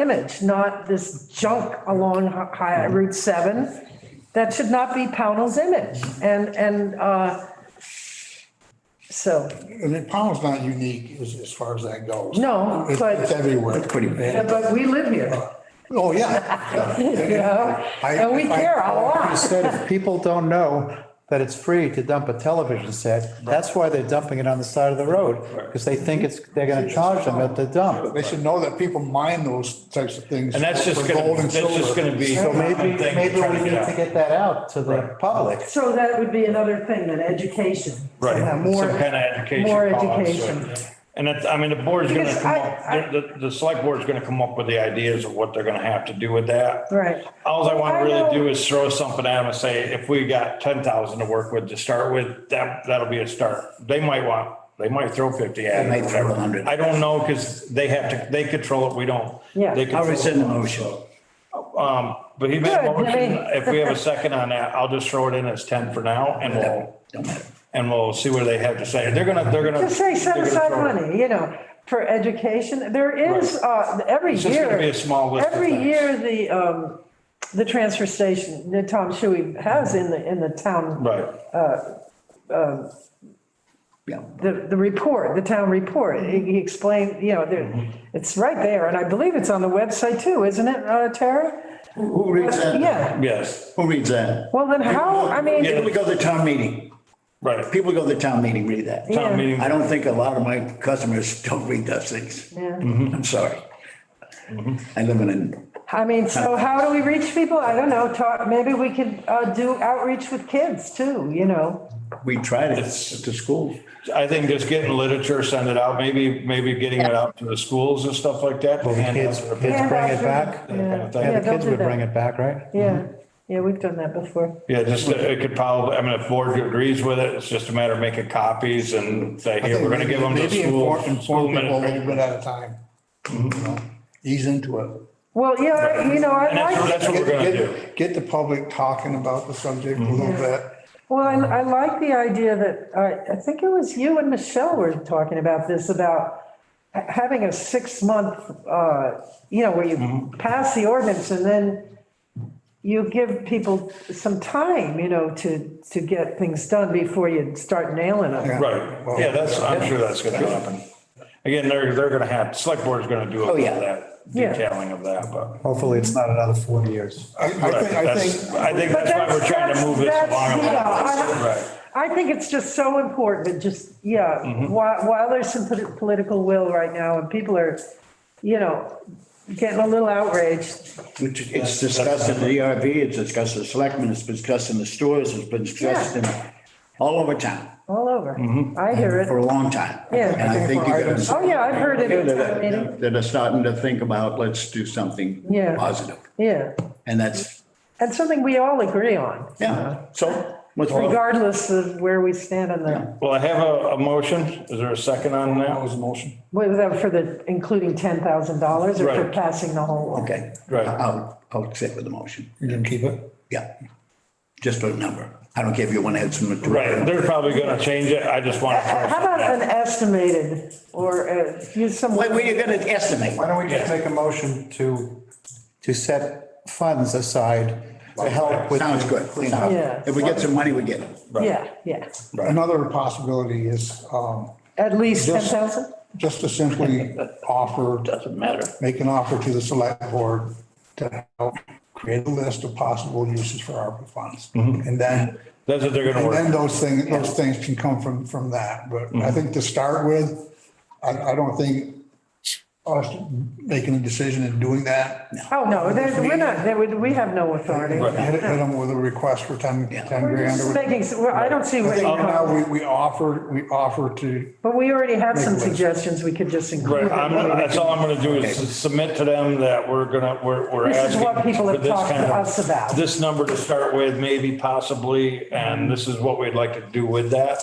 image, not this junk along Hi- Hi- Route 7. That should not be Pownell's image. And, and, uh, so, I mean, Powell's not unique as, as far as that goes. No, It's- but- It's everywhere. Pretty bad. but we live here, Oh, yeah. you know, I- and we I- care a You lot. said if people don't know that it's free to dump a television set, that's why they're dumping it on the side of the road, because they think it's, they're gonna charge them at the dump. They should know that people mine those types of things. And that's just for gonna, gold and that's just silver. gonna be. So something maybe, to maybe try we to need get out. to get that out to the public. So that would be another thing, that education. Right, somehow, some More, kind of education. more policy. education. And that's, I mean, the board's gonna Because come I- up, the, the select board's gonna come up with the ideas of what they're gonna have to do with that. Right. Alls I I wanna really know- do is throw something at them and say, if we got ten thousand to work with to start with, that, that'll be a start. They might want, they might throw fifty at it. They might throw whatever. 100. I don't know, cause they have to, they control it, we don't. Yeah. They I'll control it. rescind the motion. Um, but he made a Good, motion. Jimmy. If we have a second on that, I'll just throw it in as ten for now and we'll, Don't matter. and we'll see what they have to say. They're gonna, they're gonna. Just say set they're gonna aside throw it. money, you know, for education. There is, uh, every It's just year. gonna be a small list of Every things. year, the, um, the transfer station, that Tom Shuey has in the, in the town, Right. Yeah. the, the report, the town report. He he explained, you know, there, it's right there, and I believe it's on the website too, isn't it, uh, Tara? Who reads that? Yeah, Yes, Who reads that? well, then how, I mean, People go to town meeting. right. People go to town meeting, read that. Yeah. Town meeting. I don't think a lot of my customers don't read those things. I'm sorry. Mm-hmm. I live in a, I mean, so how do we reach people? I don't know, talk, maybe we could, uh, do outreach with kids too, you know? we tried it at the school. I think just getting literature, send it out, maybe, maybe getting it out to the schools and stuff like that. Well, the kids, kids bring it back. Yeah. Yeah, Yeah, the don't kids do would bring that. it back, right? Yeah, Mm-hmm. yeah, we've done that before. Yeah, just, uh, it could probably, I mean, if board agrees with it, it's just a matter of making copies and say, I here, think we're gonna give them to maybe school. inform- school Mm-hmm. Inform people a administration. little bit at a time. you know, Ease into it. Well, yeah, I- you know, I And that's like. what- that's what we're gonna Get- do. Mm-hmm. get- Get the public talking about the subject a little bit. Well, Uh-huh. I, I like the idea that, uh, I, I think it was you and Michelle were talking about this, about ha- having a six-month, uh, you know, where Mm-hmm. you pass the ordinance and then you give people some time, you know, to, to get things done before you start nailing them. Right, yeah, that's, I'm sure that's gonna happen. Again, they're, they're gonna have, select board's gonna do a Oh, lot yeah. of that Yeah. detailing of that, but. Hopefully it's not another 40 years. I, I think, I That's- think. I think But that's why we're trying to move this that's- along. a yeah, little I- bit. Right. I think it's just so important, that just, yeah, Mm-hmm. while, while there's some polit- political will right now and people are, you know, getting a little outraged, Which It's discussed in the ERB, it's discussed in the selectmen, it's discussed in the stores, it's been discussed in all over town all over. I hear it. for a long time. Yeah. And I think you gotta. Oh, yeah, I've heard it. at town meeting. That are starting to think about, let's do something Yeah. positive. Yeah, And that's, and something we all agree on, yeah, so what's wrong? regardless of where we stand on the, Well, I have a, a motion. Is there a second on that? was a motion. whether for the, including ten thousand dollars or for Right. passing the whole law. Okay. Right. I'll, I'll accept with the motion. You didn't keep it? Yeah. Just a number. I don't care if you want to add some. Right, they're probably gonna change it. I just want How to. about an estimated or uh, use some. Wait, wait, you're gonna estimate. Why don't we just make a motion to, to set funds aside to help with. Sounds good. cleanup. Yeah. If we get some money, we get it. Yeah, yeah, Another possibility is, um, at least ten Just- thousand? just to simply offer, Doesn't matter. make an offer to the select board to help create a list of possible uses for ARPA funds. And then, That's what Mm-hmm. they're gonna and then work. Mm-hmm. those things, those things can come from, from that. But I think to start with, I, I don't think us making a decision and doing that, Oh, no, there- we're not, there would- we have no authority. hit hit them with a request for 10, 10 We're grand. or just making, s- we're- I don't see I where, think right now, you- we, we offer, we offer to, but we already have some Make a list. suggestions we could just include. Right, I'm, in. that's all I'm gonna do is submit to them that we're gonna, we're, we're asking. This is what people for have this talked to kind of- us about. This number to start with, maybe possibly, and this is what we'd like to do with that.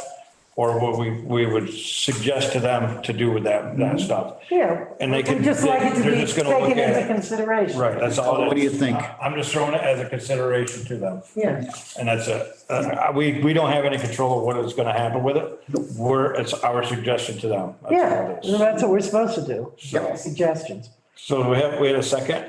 Or what we, we would suggest to them to do with that, that stuff. Yeah. And they can, Mm-hmm. We'd just like it to they're be just gonna look taken into at it. consideration. Right, that's all. it What do you is. think? I'm just throwing it as a consideration to them. Yeah. And that's it. Uh, We, we don't have any control of what is gonna happen with it. We're, it's our suggestion to them. That's all Yeah, it is. well, that's what we're supposed to do, Yep. suggestions. So do we have, wait a second.